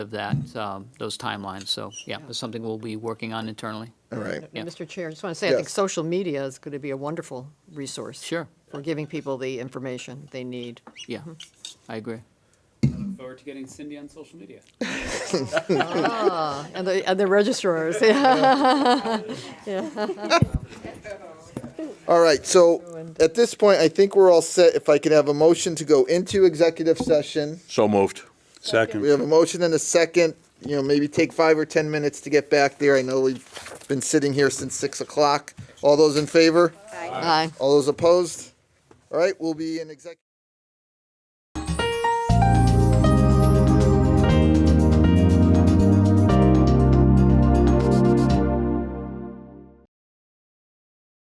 of that, um, those timelines. So, yeah, it's something we'll be working on internally. All right. Yeah. Mr. Chair, I just want to say, I think Yes. social media is going to be a wonderful resource. Sure, For giving people the information they need. yeah, I agree. Look forward to getting Cindy on social media. And the, and the registrars, yeah. All right, so Ruined. at this point, I think we're all set. If I could have a motion to go into executive session. So moved. We Second. have a motion and a second, you know, maybe take five or 10 minutes to get back there. I know we've been sitting here since 6 o'clock. All those in favor? Aye. All those opposed? All right, we'll be in executive.